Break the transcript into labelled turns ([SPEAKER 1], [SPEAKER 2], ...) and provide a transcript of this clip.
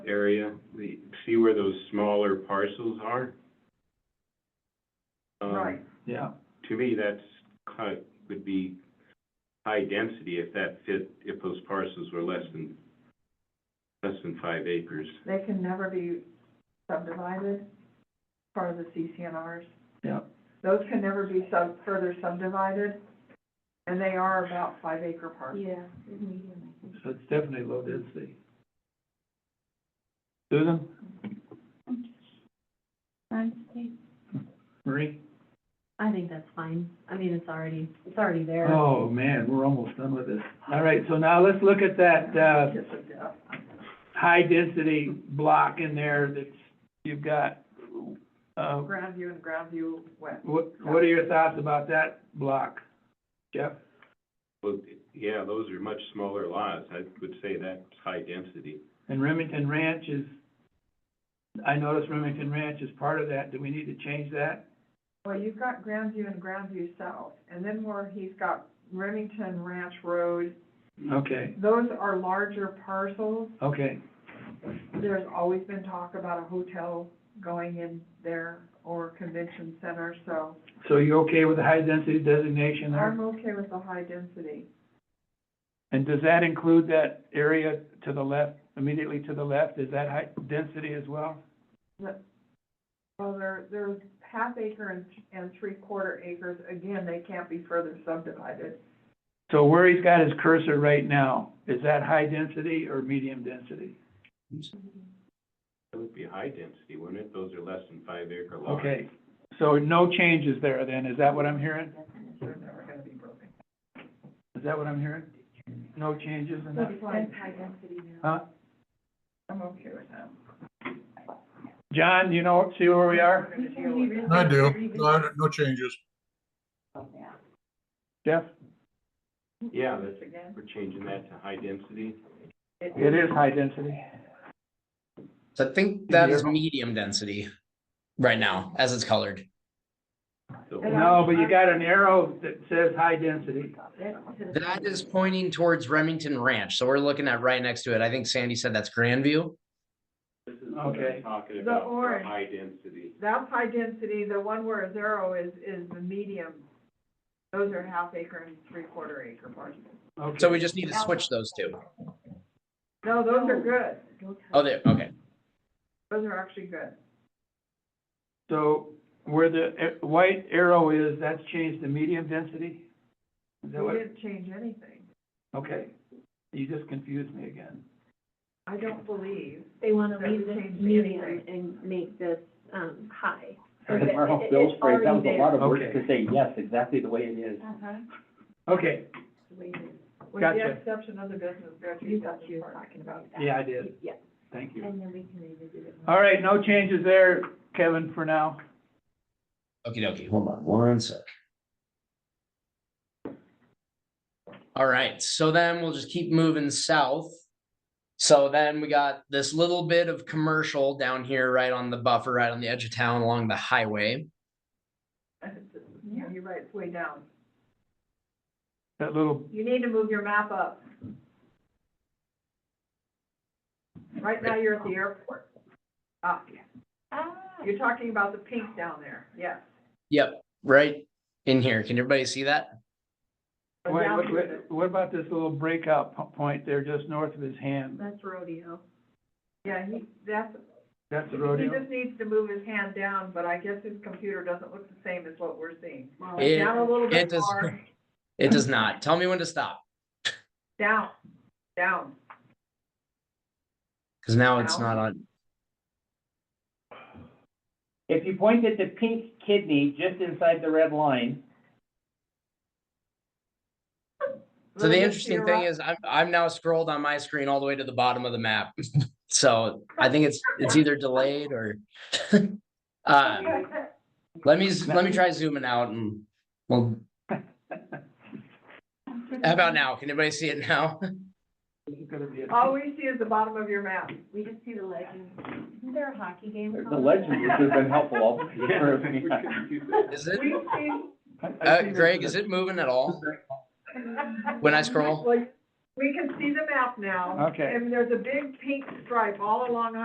[SPEAKER 1] area, the, see where those smaller parcels are? Um,
[SPEAKER 2] Right.
[SPEAKER 3] Yeah,
[SPEAKER 1] To me, that's kind, of- would be high density if that fit, if those parcels were less than, less than five acres.
[SPEAKER 2] They can never be subdivided, part of the CCNRs.
[SPEAKER 3] yeah.
[SPEAKER 2] Those can never be sub, further subdivided, and they are about five acre parcels.
[SPEAKER 4] Yeah, medium, I think.
[SPEAKER 3] So it's definitely low density. Susan,
[SPEAKER 4] Honestly,
[SPEAKER 3] Marie?
[SPEAKER 4] I think that's fine. I mean, it's already, it's already there.
[SPEAKER 3] Oh, man, we're almost done with this. All right, so now let's look at that, uh,
[SPEAKER 2] Kiss of death.
[SPEAKER 3] high-density block in there that's, you've got. Uh,
[SPEAKER 2] Grandview and Grandview West.
[SPEAKER 3] what, what are your thoughts about that block, Jeff?
[SPEAKER 1] Well, yeah, those are much smaller lots, I would say that's high density.
[SPEAKER 3] And Remington Ranch is, I noticed Remington Ranch is part of that. Do we need to change that?
[SPEAKER 2] Well, you've got Grandview and Grandview South, and then where he's got Remington Ranch Road,
[SPEAKER 3] Okay,
[SPEAKER 2] those are larger parcels.
[SPEAKER 3] okay,
[SPEAKER 2] There's always been talk about a hotel going in there or convention center, so
[SPEAKER 3] so you're okay with the high-density designation there?
[SPEAKER 2] I'm okay with the high density.
[SPEAKER 3] And does that include that area to the left, immediately to the left, is that high density as well?
[SPEAKER 2] Well, there, there's half acre and, and three quarter acres, again, they can't be further subdivided.
[SPEAKER 3] So where he's got his cursor right now, is that high density or medium density?
[SPEAKER 1] That would be high density, wouldn't it? Those are less than five acre lots.
[SPEAKER 3] Okay, so no changes there then, is that what I'm hearing?
[SPEAKER 2] They're never gonna be broken.
[SPEAKER 3] Is that what I'm hearing? No changes in that?
[SPEAKER 4] It's high density now.
[SPEAKER 3] Huh?
[SPEAKER 2] I'm okay with that.
[SPEAKER 3] John, you know, see where we are?
[SPEAKER 5] I do. No, no changes.
[SPEAKER 3] Jeff?
[SPEAKER 1] Yeah, that's,
[SPEAKER 2] This again,
[SPEAKER 1] we're changing that to high density.
[SPEAKER 3] It is high density.
[SPEAKER 6] So I think that is medium density right now, as it's colored.
[SPEAKER 1] So-
[SPEAKER 3] No, but you got an arrow that says high density.
[SPEAKER 6] That is pointing towards Remington Ranch, so we're looking at right next to it. I think Sandy said that's Grandview.
[SPEAKER 1] This is what
[SPEAKER 3] Okay.
[SPEAKER 1] I'm talking
[SPEAKER 2] The
[SPEAKER 1] about, for
[SPEAKER 2] orange.
[SPEAKER 1] high density.
[SPEAKER 2] That's high density, the one where a zero is, is the medium. Those are half acre and three quarter acre parcels.
[SPEAKER 6] So
[SPEAKER 3] Okay,
[SPEAKER 6] we just need to switch those two.
[SPEAKER 2] No, those are good,
[SPEAKER 6] Oh, there, okay.
[SPEAKER 2] those are actually good.
[SPEAKER 3] so where the eh, white arrow is, that's changed to medium density? Is that
[SPEAKER 2] We
[SPEAKER 3] what?
[SPEAKER 2] didn't change anything,
[SPEAKER 3] Okay, you just confused me again.
[SPEAKER 2] I don't believe.
[SPEAKER 4] They wanna
[SPEAKER 2] That
[SPEAKER 4] leave this
[SPEAKER 2] changed the
[SPEAKER 4] medium
[SPEAKER 2] anyway.
[SPEAKER 4] and make this, um, high.
[SPEAKER 7] Right, in Marshall Bill's
[SPEAKER 4] It's
[SPEAKER 7] phrase, that was
[SPEAKER 4] already
[SPEAKER 7] a lot of
[SPEAKER 3] there.
[SPEAKER 7] words
[SPEAKER 3] Okay.
[SPEAKER 7] to say, yes, exactly the way it is.
[SPEAKER 3] Okay,
[SPEAKER 2] With the
[SPEAKER 3] Gotcha.
[SPEAKER 2] exception of the business,
[SPEAKER 4] You
[SPEAKER 2] Grandview
[SPEAKER 4] got what you
[SPEAKER 2] Business
[SPEAKER 4] were
[SPEAKER 2] Park.
[SPEAKER 4] talking about.
[SPEAKER 3] yeah, I did,
[SPEAKER 4] Yeah,
[SPEAKER 3] thank you.
[SPEAKER 4] and then we can revisit it.
[SPEAKER 3] All right, no changes there, Kevin, for now.
[SPEAKER 6] Okie dokie, hold on one sec. All right, so then we'll just keep moving south. So then we got this little bit of commercial down here, right on the buffer, right on the edge of town along the highway.
[SPEAKER 2] Yeah, You're right, it's way down.
[SPEAKER 3] That little,
[SPEAKER 2] You need to move your map up. Right now, you're at the airport. Ah,
[SPEAKER 4] Ah,
[SPEAKER 2] you're talking about the pink down there, yes.
[SPEAKER 6] Yep, right in here. Can everybody see that?
[SPEAKER 2] Or
[SPEAKER 3] wait,
[SPEAKER 2] down
[SPEAKER 3] what,
[SPEAKER 2] here.
[SPEAKER 3] what- what about this little breakout po- point there just north of his hand?
[SPEAKER 4] That's rodeo.
[SPEAKER 2] Yeah, he, that's,
[SPEAKER 3] That's the
[SPEAKER 2] he
[SPEAKER 3] rodeo.
[SPEAKER 2] just needs to move his hand down, but I guess his computer doesn't look the same as what we're seeing.
[SPEAKER 4] Well,
[SPEAKER 6] It-
[SPEAKER 2] Down a little
[SPEAKER 6] It
[SPEAKER 2] bit
[SPEAKER 6] does,
[SPEAKER 2] more,
[SPEAKER 6] it does not. Tell me when to stop,
[SPEAKER 2] down, down.
[SPEAKER 6] because now it's
[SPEAKER 2] Now?
[SPEAKER 6] not on.
[SPEAKER 7] If you point at the pink kidney just inside the red line,
[SPEAKER 6] So
[SPEAKER 2] Little
[SPEAKER 6] the
[SPEAKER 2] bit to
[SPEAKER 6] interesting
[SPEAKER 2] your
[SPEAKER 6] thing
[SPEAKER 2] right.
[SPEAKER 6] is I'm, I'm now scrolled on my screen all the way to the bottom of the map. So I think it's, it's either delayed or. Uh, let me, z- let me try zooming out and, well. How about now? Can anybody see it now?
[SPEAKER 3] This is gonna be a-
[SPEAKER 7] Oh.
[SPEAKER 2] All we see is the bottom of your map.
[SPEAKER 4] We just see the legend. Isn't there a hockey game?
[SPEAKER 7] there's the
[SPEAKER 4] coming?
[SPEAKER 7] legend, which has been helpful all this
[SPEAKER 6] Is it,
[SPEAKER 2] We see
[SPEAKER 3] I- I
[SPEAKER 6] uh,
[SPEAKER 3] see this
[SPEAKER 6] Greg,
[SPEAKER 3] as
[SPEAKER 6] is it moving at all when I scroll?
[SPEAKER 2] Well, We can see the map now.
[SPEAKER 3] Okay.
[SPEAKER 2] And there's a big pink stripe all along